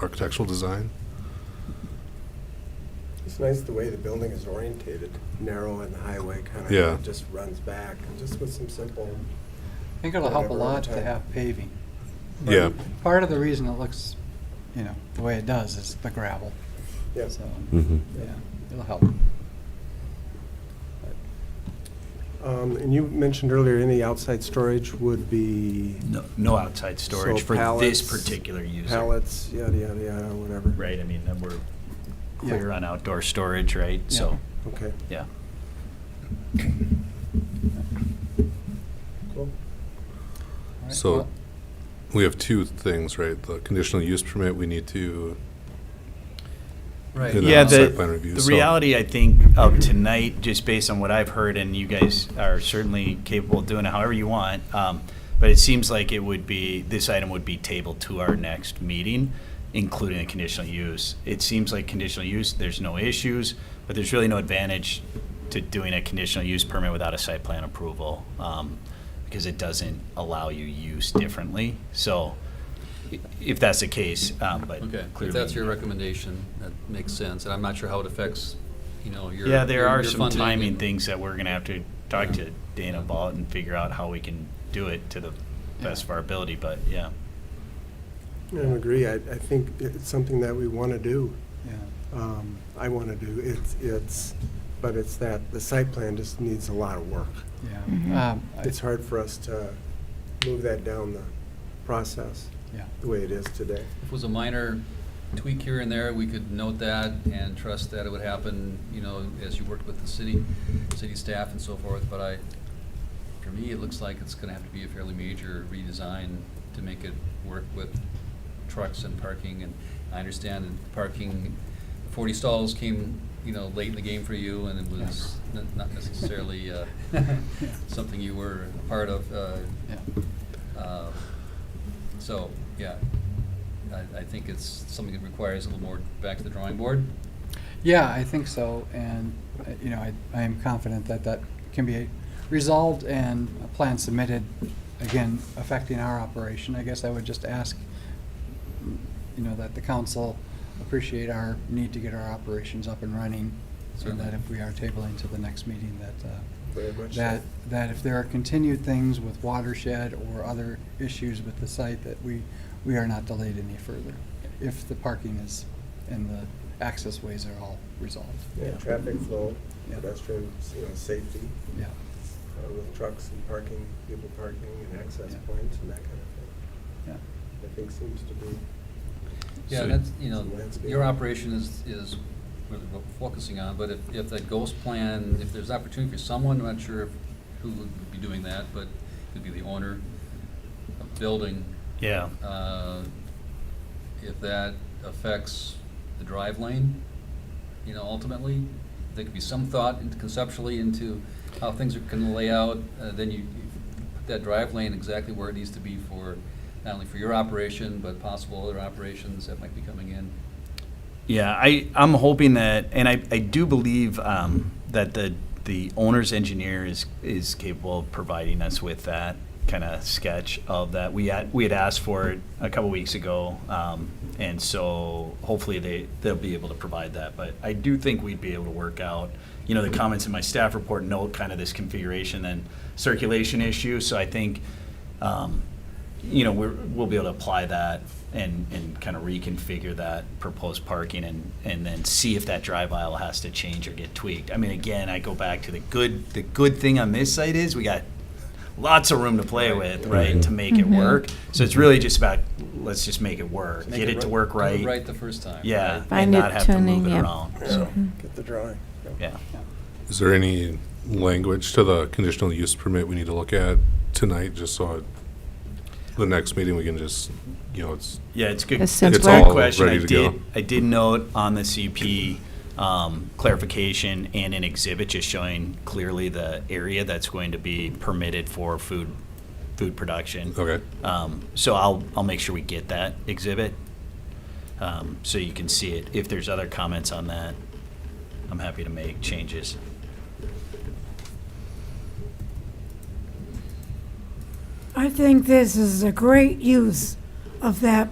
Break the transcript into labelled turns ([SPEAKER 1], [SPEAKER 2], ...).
[SPEAKER 1] architectural design.
[SPEAKER 2] It's nice the way the building is orientated, narrow and the highway kind of.
[SPEAKER 1] Yeah.
[SPEAKER 2] Just runs back, just with some simple,
[SPEAKER 3] I think it'll help a lot to have paving.
[SPEAKER 1] Yeah,
[SPEAKER 3] Part of the reason it looks, you know, the way it does is the gravel,
[SPEAKER 2] yes.
[SPEAKER 3] so,
[SPEAKER 4] Mhm.
[SPEAKER 3] yeah, it'll help.
[SPEAKER 2] Um, And you mentioned earlier, any outside storage would be
[SPEAKER 5] No, no outside storage
[SPEAKER 2] So
[SPEAKER 5] for
[SPEAKER 2] pallets-
[SPEAKER 5] this particular user.
[SPEAKER 2] pallets, yada, yada, yada, whatever.
[SPEAKER 5] Right, I mean, then we're
[SPEAKER 3] Yeah.
[SPEAKER 5] clear on outdoor storage, right? So,
[SPEAKER 2] Okay,
[SPEAKER 5] yeah.
[SPEAKER 2] cool.
[SPEAKER 3] All right,
[SPEAKER 1] so
[SPEAKER 3] well,
[SPEAKER 1] we have two things, right? The conditional use permit, we need to,
[SPEAKER 3] Right.
[SPEAKER 1] you know,
[SPEAKER 5] Yeah,
[SPEAKER 1] site plan
[SPEAKER 5] the,
[SPEAKER 1] review.
[SPEAKER 5] the
[SPEAKER 1] so-
[SPEAKER 5] reality, I think, of tonight, just based on what I've heard, and you guys are certainly capable of doing it however you want, um, but it seems like it would be, this item would be tabled to our next meeting, including a conditional use. It seems like conditional use, there's no issues, but there's really no advantage to doing a conditional use permit without a site plan approval, um, because it doesn't allow you use differently. So, i- if that's the case, um, but
[SPEAKER 6] Okay,
[SPEAKER 5] clearly.
[SPEAKER 6] if that's your recommendation, that makes sense, and I'm not sure how it affects, you know, your.
[SPEAKER 5] Yeah, there
[SPEAKER 6] your-
[SPEAKER 5] are
[SPEAKER 6] your
[SPEAKER 5] some
[SPEAKER 6] funding
[SPEAKER 5] timing
[SPEAKER 6] and-
[SPEAKER 5] things that we're gonna have to talk to Dana about and figure out how we can do it to the best of our ability, but yeah.
[SPEAKER 2] I agree, I, I think it's something that we want to do.
[SPEAKER 3] yeah.
[SPEAKER 2] um, I want to do, it's, it's, but it's that, the site plan just needs a lot of work.
[SPEAKER 3] Yeah. Um, I-
[SPEAKER 2] It's hard for us to move that down the process
[SPEAKER 3] Yeah.
[SPEAKER 2] the way it is today.
[SPEAKER 6] If it was a minor tweak here and there, we could note that and trust that it would happen, you know, as you worked with the city, city staff and so forth, but I, for me, it looks like it's gonna have to be a fairly major redesign to make it work with trucks and parking, and I understand that parking, forty stalls came, you know, late in the game for you, and it was n- not necessarily, uh, something you were a part of, uh,
[SPEAKER 3] Yeah.
[SPEAKER 6] uh, So, yeah, I, I think it's something that requires a little more back to the drawing board.
[SPEAKER 3] Yeah, I think so, and, uh, you know, I, I am confident that that can be resolved and a plan submitted, again, affecting our operation. I guess I would just ask, you know, that the council appreciate our need to get our operations up and running, so that
[SPEAKER 6] Certainly.
[SPEAKER 3] if we are tabling to the next meeting, that, uh,
[SPEAKER 2] Very much so.
[SPEAKER 3] that, that if there are continued things with watershed or other issues with the site, that we, we are not delayed any further, if the parking is, and the access ways are all resolved.
[SPEAKER 2] Yeah, traffic flow,
[SPEAKER 3] Yeah.
[SPEAKER 2] pedestrian, you know, safety,
[SPEAKER 3] Yeah,
[SPEAKER 2] uh, with trucks and parking, people parking and access
[SPEAKER 3] Yeah.
[SPEAKER 2] points and that kind of
[SPEAKER 3] yeah,
[SPEAKER 2] thing. I think seems to be,
[SPEAKER 6] Yeah,
[SPEAKER 5] So-
[SPEAKER 6] that's, you know,
[SPEAKER 2] So landscape.
[SPEAKER 6] your operation is, is really what we're focusing on, but if, if that ghost plan, if there's opportunity for someone, I'm not sure if- who would be doing that, but it could be the owner of building.
[SPEAKER 5] Yeah,
[SPEAKER 6] uh, If that affects the drive lane, you know, ultimately, there could be some thought into- conceptually into how things are gonna lay out, uh, then you you put that drive lane exactly where it needs to be for, not only for your operation, but possible other operations that might be coming in.
[SPEAKER 5] yeah, I, I'm hoping that, and I, I do believe, um, that the, the owner's engineer is, is capable of providing us with that kind of sketch of that. We had, we had asked for it a couple weeks ago, um, and so hopefully they, they'll be able to provide that. But I do think we'd be able to work out, you know, the comments in my staff report note kind of this configuration and circulation issue, so I think, um, you know, we're, we'll be able to apply that and, and kind of reconfigure that proposed parking and, and then see if that drive aisle has to change or get tweaked. I mean, again, I go back to the good, the good thing on this site is we got lots of room to play with, right, to make it work. So it's really just about, let's just make it work,
[SPEAKER 6] Make
[SPEAKER 5] get it to
[SPEAKER 6] ri-
[SPEAKER 5] work
[SPEAKER 6] do it
[SPEAKER 5] right.
[SPEAKER 6] Right the first time.
[SPEAKER 5] Yeah,
[SPEAKER 6] right?
[SPEAKER 5] and
[SPEAKER 7] Fine
[SPEAKER 5] not have to move
[SPEAKER 7] tuning,
[SPEAKER 5] it
[SPEAKER 7] yeah.
[SPEAKER 5] around, so,
[SPEAKER 2] get the drawing.
[SPEAKER 5] yeah.
[SPEAKER 1] Is there any language to the conditional use permit we need to look at tonight, just so at the next meeting, we can just, you know, it's,
[SPEAKER 5] Yeah, it's good.
[SPEAKER 7] As simple.
[SPEAKER 5] It's a good
[SPEAKER 7] It's all
[SPEAKER 5] question. I
[SPEAKER 1] ready to go.
[SPEAKER 5] did, I did note on the CP um, clarification and an exhibit just showing clearly the area that's going to be permitted for food, food production.
[SPEAKER 1] okay.
[SPEAKER 5] Um, So I'll, I'll make sure we get that exhibit, um, so you can see it. If there's other comments on that, I'm happy to make changes.
[SPEAKER 8] I think this is a great use of that